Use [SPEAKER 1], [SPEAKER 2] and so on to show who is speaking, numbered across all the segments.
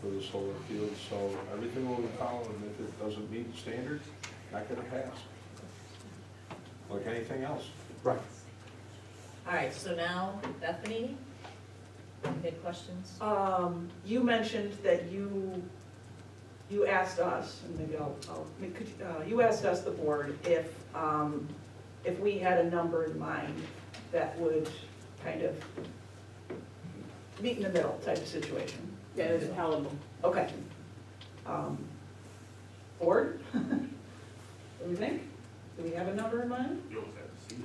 [SPEAKER 1] for the solar field, so everything will be followed, and if it doesn't meet the standard, not gonna pass. Like anything else.
[SPEAKER 2] Right.
[SPEAKER 3] All right, so now Bethany, any questions?
[SPEAKER 4] Um, you mentioned that you, you asked us, and maybe I'll, I'll, could, you- uh, you asked us, the board, if, um, if we had a number in mind that would kind of meet in the middle type of situation.
[SPEAKER 5] That is palatable.
[SPEAKER 4] Okay. Um, Board? What do you think? Do we have a number in mind?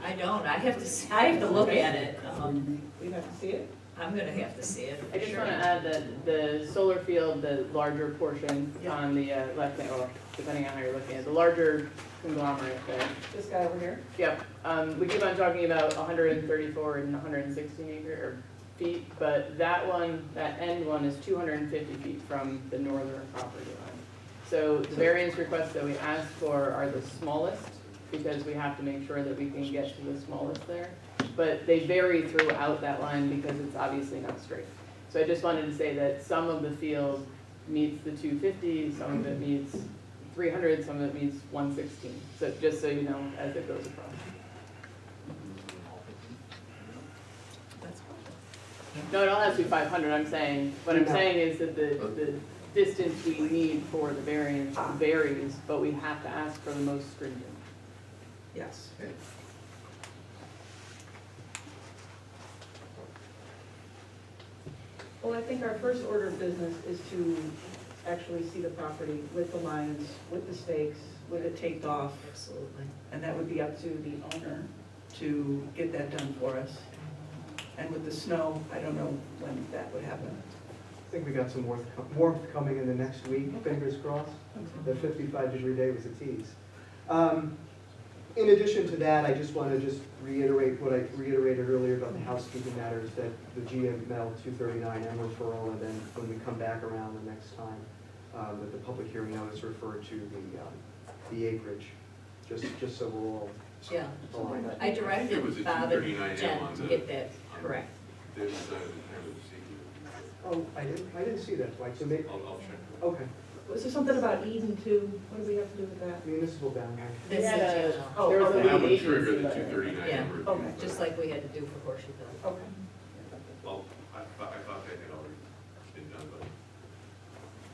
[SPEAKER 3] I don't, I have to, s- I have to look at it. Um,
[SPEAKER 4] We'd have to see it?
[SPEAKER 3] I'm gonna have to see it. for
[SPEAKER 5] I just
[SPEAKER 3] sure.
[SPEAKER 5] want to add that the solar field, the larger portion on the uh, left, or depending on how you're looking at, the larger conglomerate there.
[SPEAKER 4] This guy over here?
[SPEAKER 5] Yep, um, we keep on talking about hundred and thirty-four and hundred and sixteen acre or feet, but that one, that end one is two hundred and fifty feet from the northern property line. So the variance requests that we ask for are the smallest, because we have to make sure that we can get to the smallest there. But they vary throughout that line because it's obviously not straight. So I just wanted to say that some of the field meets the two fifty, some of it meets three hundred, some of it means one sixteen, so just so you know, as it goes across.
[SPEAKER 3] That's fine.
[SPEAKER 5] No, it all has to be five hundred, I'm saying, what I'm
[SPEAKER 2] No.
[SPEAKER 5] saying is that the, the distance we need for the variance varies, but we have to ask for the most stringent.
[SPEAKER 4] Yes. Well, I think our first order of business is to actually see the property with the lines, with the stakes, with it taped off,
[SPEAKER 3] Absolutely.
[SPEAKER 4] and that would be up to the owner to get that done for us. And with the snow, I don't know when that would happen.
[SPEAKER 2] I think we got some warmth, co- warmth coming in the next week, fingers crossed. The fifty-five degree day was a tease. Um, In addition to that, I just want to just reiterate what I reiterated earlier about the housekeeping matters that the GML two thirty-nine M referral, and then when we come back around the next time, um, that the public hearing notice referred to the, um, the acreage, just, just so we're all
[SPEAKER 3] Yeah,
[SPEAKER 2] aligned.
[SPEAKER 3] I directed
[SPEAKER 6] It was a
[SPEAKER 3] Bob and
[SPEAKER 6] 239
[SPEAKER 3] Jen
[SPEAKER 6] on
[SPEAKER 3] to
[SPEAKER 6] the-
[SPEAKER 3] get that correct.
[SPEAKER 6] There's, uh, kind of a secret.
[SPEAKER 2] Oh, I didn't, I didn't see that, like, so may
[SPEAKER 6] I'll, I'll check.
[SPEAKER 2] okay,
[SPEAKER 4] Was there something about Eden too? What do we have to do with that?
[SPEAKER 2] municipal boundary.
[SPEAKER 3] This
[SPEAKER 5] We had
[SPEAKER 3] is,
[SPEAKER 5] a-
[SPEAKER 4] Oh,
[SPEAKER 5] There was a
[SPEAKER 4] okay.
[SPEAKER 6] That
[SPEAKER 5] lead
[SPEAKER 6] would trigger
[SPEAKER 5] agency
[SPEAKER 6] the two
[SPEAKER 5] letter.
[SPEAKER 6] thirty-nine
[SPEAKER 3] Yeah. Oh,
[SPEAKER 6] number.
[SPEAKER 4] Okay.
[SPEAKER 3] just like we had to do for Horseshoe Hill.
[SPEAKER 4] Okay.
[SPEAKER 6] Well, I thought, I thought that had already been done,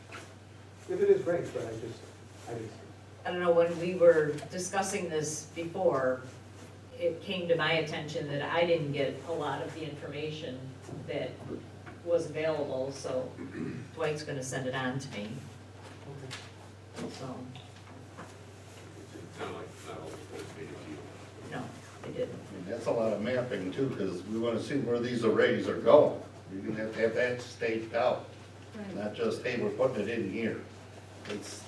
[SPEAKER 6] but.
[SPEAKER 2] If it is great, but I just, I just,
[SPEAKER 3] I don't know, when we were discussing this before, it came to my attention that I didn't get a lot of the information that was available, so Dwight's gonna send it on to me,
[SPEAKER 2] okay.
[SPEAKER 3] so,
[SPEAKER 6] It's not like, not all the boards made it
[SPEAKER 3] no, I didn't.
[SPEAKER 7] And That's a lot of mapping too, because we want to see where these arrays are going. You're gonna have to have that staked out, not just, hey, we're putting it in here. It's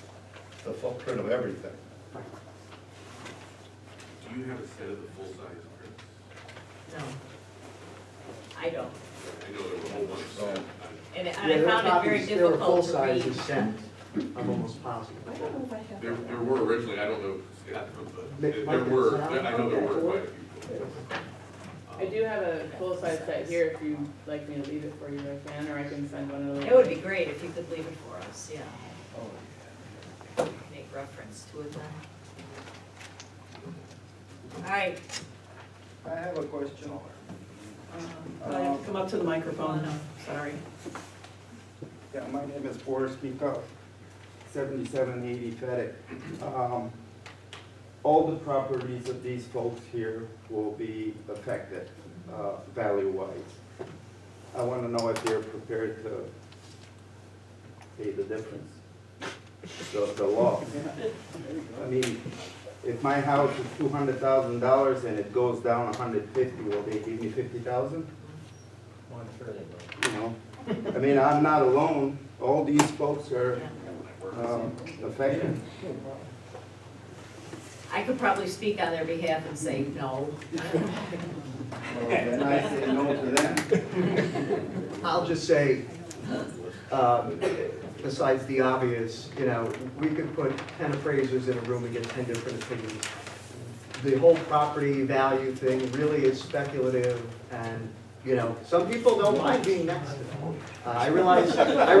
[SPEAKER 7] the footprint of everything.
[SPEAKER 6] to you. Do you have a set of the full-size prints?
[SPEAKER 3] No. I don't.
[SPEAKER 6] I know there were a whole bunch of
[SPEAKER 7] Oh.
[SPEAKER 6] set.
[SPEAKER 3] And
[SPEAKER 2] Yeah,
[SPEAKER 3] I
[SPEAKER 2] there are
[SPEAKER 3] found it very
[SPEAKER 2] copies, there are
[SPEAKER 3] difficult to
[SPEAKER 2] full-size
[SPEAKER 3] read.
[SPEAKER 2] and sent, I'm almost positive.
[SPEAKER 4] I don't know if I have
[SPEAKER 6] There, there
[SPEAKER 4] that.
[SPEAKER 6] were originally, I don't know, Scott,
[SPEAKER 2] Nick,
[SPEAKER 6] but there there
[SPEAKER 2] Mike,
[SPEAKER 6] were,
[SPEAKER 2] is that
[SPEAKER 6] I know there
[SPEAKER 2] on?
[SPEAKER 6] were quite a few.
[SPEAKER 5] I do have a full-size set here, if you'd like me to leave it for you, I can, or I can send one of those.
[SPEAKER 3] It would be great if you could leave it for us, yeah. Make reference to it then. All right,
[SPEAKER 8] I have a question.
[SPEAKER 4] Um, I have to come up to the microphone, sorry.
[SPEAKER 8] Yeah, my name is Boris Miko, seventy-seven eighty Fedit. Um, All the properties of these folks here will be affected, uh, value-wise. I want to know if they're prepared to pay the difference, the, the loss. I mean, if my house is two hundred thousand dollars and it goes down a hundred fifty, will they give me fifty thousand? you know, I mean, I'm not alone, all these folks are, um, affected.
[SPEAKER 3] I could probably speak on their behalf and say no.
[SPEAKER 8] Well, Then I say no to them.
[SPEAKER 3] I'll
[SPEAKER 2] I'll just say, um, besides the obvious, you know, we could put ten appraisers in a room and get ten different opinions. The whole property value thing really is speculative, and, you know, some people don't mind being next to them. Uh, I realize, I